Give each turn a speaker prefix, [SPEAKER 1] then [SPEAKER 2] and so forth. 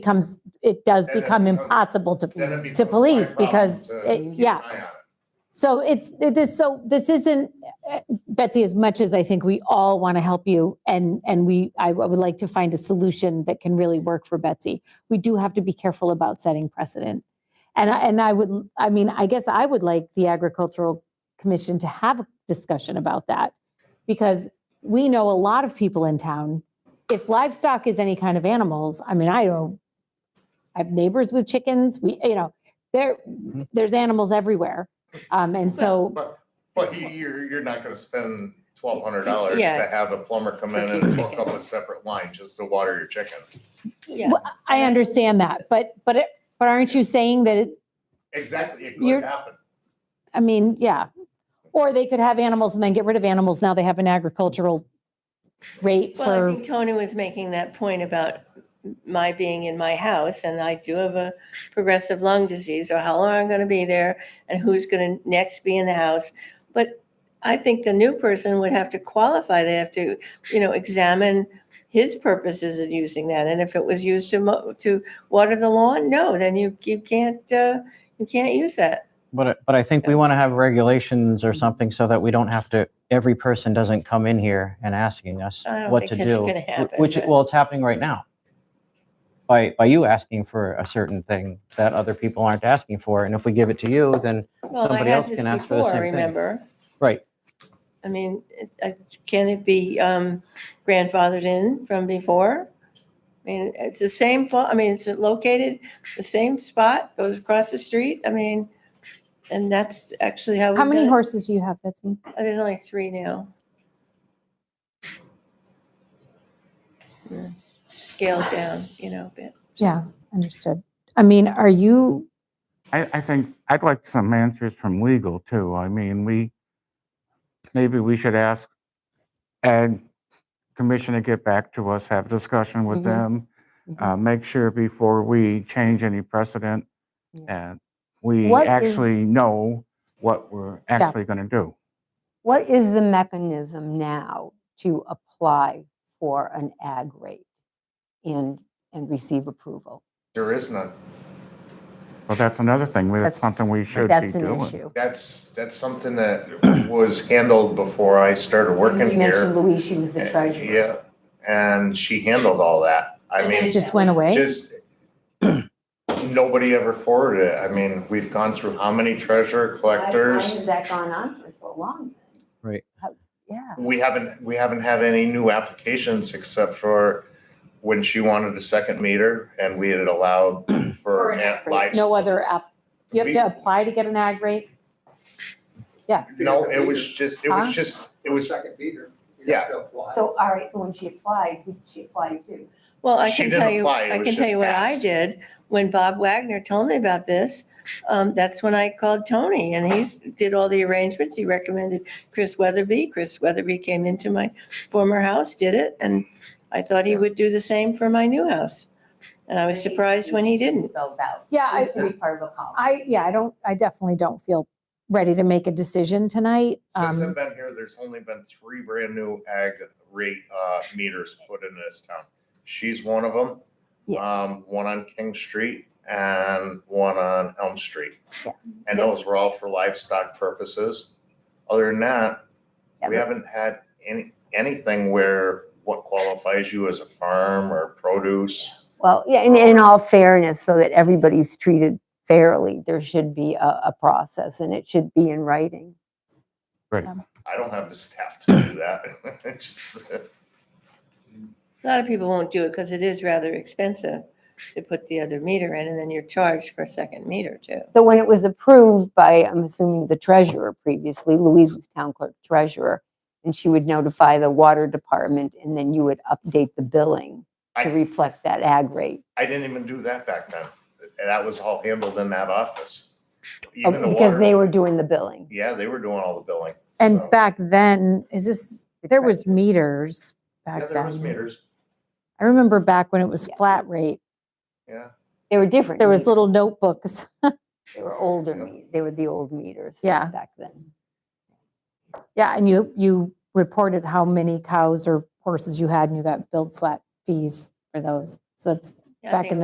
[SPEAKER 1] becomes, it does
[SPEAKER 2] Then it
[SPEAKER 1] become
[SPEAKER 2] becomes-
[SPEAKER 1] impossible
[SPEAKER 2] then it
[SPEAKER 1] to, to
[SPEAKER 2] becomes my
[SPEAKER 1] police
[SPEAKER 2] problem
[SPEAKER 1] because,
[SPEAKER 2] to
[SPEAKER 1] it-
[SPEAKER 2] keep
[SPEAKER 1] yeah.
[SPEAKER 2] an eye on it.
[SPEAKER 1] So it's, this, so this isn't, eh, Betsy, as much as I think we all want to help you and, and we, I would like to find a solution that can really work for Betsy. We do have to be careful about setting precedent. And I, and I would, I mean, I guess I would like the Agricultural Commission to have a discussion about that. Because we know a lot of people in town, if livestock is any kind of animals, I mean, I don't, I have neighbors with chickens, we, you know, there, there's animals everywhere. Um, and so,
[SPEAKER 2] But, but you- you're, you're not gonna spend twelve hundred dollars to
[SPEAKER 3] Yeah.
[SPEAKER 2] have a plumber come in and hook up a separate line just to water your chickens.
[SPEAKER 3] Yeah,
[SPEAKER 1] Well, I understand that, but, but, it- but aren't you saying that, it-
[SPEAKER 2] Exactly, it
[SPEAKER 1] You're-
[SPEAKER 2] could happen.
[SPEAKER 1] I mean, yeah. Or they could have animals and then get rid of animals. Now they have an agricultural rate
[SPEAKER 3] well, I
[SPEAKER 1] for,
[SPEAKER 3] think Tony was making that point about my being in my house and I do have a progressive lung disease, or how long I'm gonna be there and who's gonna next be in the house. But I think the new person would have to qualify, they have to, you know, examine his purposes of using that. And if it was used to mo- to water the lawn, no, then you, you can't, uh, you can't use that.
[SPEAKER 4] But, I- but I think we
[SPEAKER 3] Yeah. Mm-hmm.
[SPEAKER 4] want to have regulations or something so that we don't have to, every person doesn't come in here and asking us
[SPEAKER 3] I don't
[SPEAKER 4] what
[SPEAKER 3] think
[SPEAKER 4] to
[SPEAKER 3] that's
[SPEAKER 4] do.
[SPEAKER 3] gonna
[SPEAKER 4] wh-
[SPEAKER 3] happen,
[SPEAKER 4] Which,
[SPEAKER 3] but-
[SPEAKER 4] well, it's happening right now. By, by you asking for a certain thing that other people aren't asking for. And if we give it to you, then,
[SPEAKER 3] Well, I
[SPEAKER 4] Somebody
[SPEAKER 3] had
[SPEAKER 4] else
[SPEAKER 3] this
[SPEAKER 4] can ask for the
[SPEAKER 3] before,
[SPEAKER 4] same thing.
[SPEAKER 3] Remember?
[SPEAKER 4] right,
[SPEAKER 3] I mean, it- I- can it be um, grandfathered in from before? I mean, it's the same, fa- I mean, it's located, the same spot, goes across the street, I mean, and that's actually how.
[SPEAKER 1] how
[SPEAKER 3] we've
[SPEAKER 1] many
[SPEAKER 3] done it.
[SPEAKER 1] horses do you have, Betsy?
[SPEAKER 3] Uh, There's only three now. Yeah, Hmm. Scaled down, you know, a bit.
[SPEAKER 1] Yeah, understood. I mean, are you,
[SPEAKER 5] I, I think, I'd like some answers from legal too. I mean, we, maybe we should ask Ag Commission to get back to us, have a discussion
[SPEAKER 1] Mhm.
[SPEAKER 6] Mm-hmm.
[SPEAKER 5] with them,
[SPEAKER 1] Mhm.
[SPEAKER 5] uh, make sure before we change any precedent that we
[SPEAKER 6] What
[SPEAKER 5] actually
[SPEAKER 6] is-
[SPEAKER 5] know what we're actually going to do.
[SPEAKER 6] What is the mechanism now to apply for an ag rate and, and receive approval?
[SPEAKER 2] There is none.
[SPEAKER 5] Well, that's another thing, that's something we should be
[SPEAKER 6] That's an
[SPEAKER 5] doing.
[SPEAKER 6] issue.
[SPEAKER 2] That's, that's something that was handled before I started working
[SPEAKER 6] You mentioned
[SPEAKER 2] here. Eh,
[SPEAKER 6] Louise, she was the treasurer.
[SPEAKER 2] Yeah, and she handled all that. I
[SPEAKER 3] And then
[SPEAKER 2] mean.
[SPEAKER 1] it just went away?
[SPEAKER 2] Just, nobody ever forwarded it. I mean, we've gone through how many treasurer
[SPEAKER 6] Why
[SPEAKER 2] collectors?
[SPEAKER 6] has that gone on for so long?
[SPEAKER 4] Right.
[SPEAKER 6] How- Yeah.
[SPEAKER 2] We haven't, we haven't had any new applications except for when she wanted a second meter and we had allowed for net lives.
[SPEAKER 1] No other app, you have
[SPEAKER 2] We-
[SPEAKER 1] to apply to get an ag rate?
[SPEAKER 2] No, it was just, it
[SPEAKER 1] Huh?
[SPEAKER 2] was just, it was,
[SPEAKER 7] Second beater.
[SPEAKER 2] You have
[SPEAKER 6] So, all right, so when she applied, who did she apply to?
[SPEAKER 3] Well, I
[SPEAKER 2] She
[SPEAKER 3] can
[SPEAKER 2] didn't
[SPEAKER 3] tell you,
[SPEAKER 2] apply, it
[SPEAKER 3] I
[SPEAKER 2] was
[SPEAKER 3] can tell
[SPEAKER 2] just
[SPEAKER 3] you what I
[SPEAKER 2] asked.
[SPEAKER 3] did when Bob Wagner told me about this. Um, that's when I called Tony and he s- did all the arrangements. He recommended Chris Weatherby. Chris Weatherby came into my former house, did it, and I thought he would do the same for my new house. And I was surprised when he didn't.
[SPEAKER 6] Spelled out.
[SPEAKER 1] Yeah, I,
[SPEAKER 6] It's to be part of a policy.
[SPEAKER 1] I, yeah, I don't, I definitely don't feel ready to make a decision tonight.
[SPEAKER 2] since I've
[SPEAKER 1] Um,
[SPEAKER 2] been here, there's only been three brand new ag rate, uh, meters put in this town. She's one of them.
[SPEAKER 6] Yeah.
[SPEAKER 2] Um, one on King Street and one on Elm Street.
[SPEAKER 6] Yeah.
[SPEAKER 2] And those were all for livestock purposes. Other than that,
[SPEAKER 6] Yeah,
[SPEAKER 2] we
[SPEAKER 6] but-
[SPEAKER 2] haven't had any, anything where what qualifies you as a farm or produce.
[SPEAKER 6] Well, yeah, and in all fairness, so that everybody's treated fairly, there should be a, a process and it should be in writing.
[SPEAKER 2] I don't have the staff to do that. Just-
[SPEAKER 3] A lot of people won't do it because it is rather expensive to put the other meter in and then you're charged for a second meter too.
[SPEAKER 6] So when it was approved by, I'm assuming the treasurer previously, Louise was town clerk treasurer, and she would notify the water department and then you would update the billing
[SPEAKER 2] I-
[SPEAKER 6] to reflect that ag rate.
[SPEAKER 2] I didn't even do that back then. And That was all handled in that office.
[SPEAKER 6] Oh,
[SPEAKER 2] Even the
[SPEAKER 6] Because
[SPEAKER 2] water-
[SPEAKER 6] they were doing the billing.
[SPEAKER 2] Yeah, they were doing all the billing. so-
[SPEAKER 1] and back then, is this, there was meters
[SPEAKER 2] Yeah,
[SPEAKER 1] back
[SPEAKER 2] there was
[SPEAKER 1] then.
[SPEAKER 2] meters,
[SPEAKER 1] I remember back when it was
[SPEAKER 6] Yeah.
[SPEAKER 1] flat rate,
[SPEAKER 2] yeah.
[SPEAKER 6] They were different.
[SPEAKER 1] there was
[SPEAKER 6] meters.
[SPEAKER 1] little notebooks.
[SPEAKER 6] They were older,
[SPEAKER 2] Yeah.
[SPEAKER 6] me- they were the old meters.
[SPEAKER 1] Yeah.
[SPEAKER 6] Back then.
[SPEAKER 1] Yeah, and you, you reported how many cows or horses you had and you got billed flat fees for those. So that's
[SPEAKER 3] Yeah, I
[SPEAKER 1] Back
[SPEAKER 3] think
[SPEAKER 1] in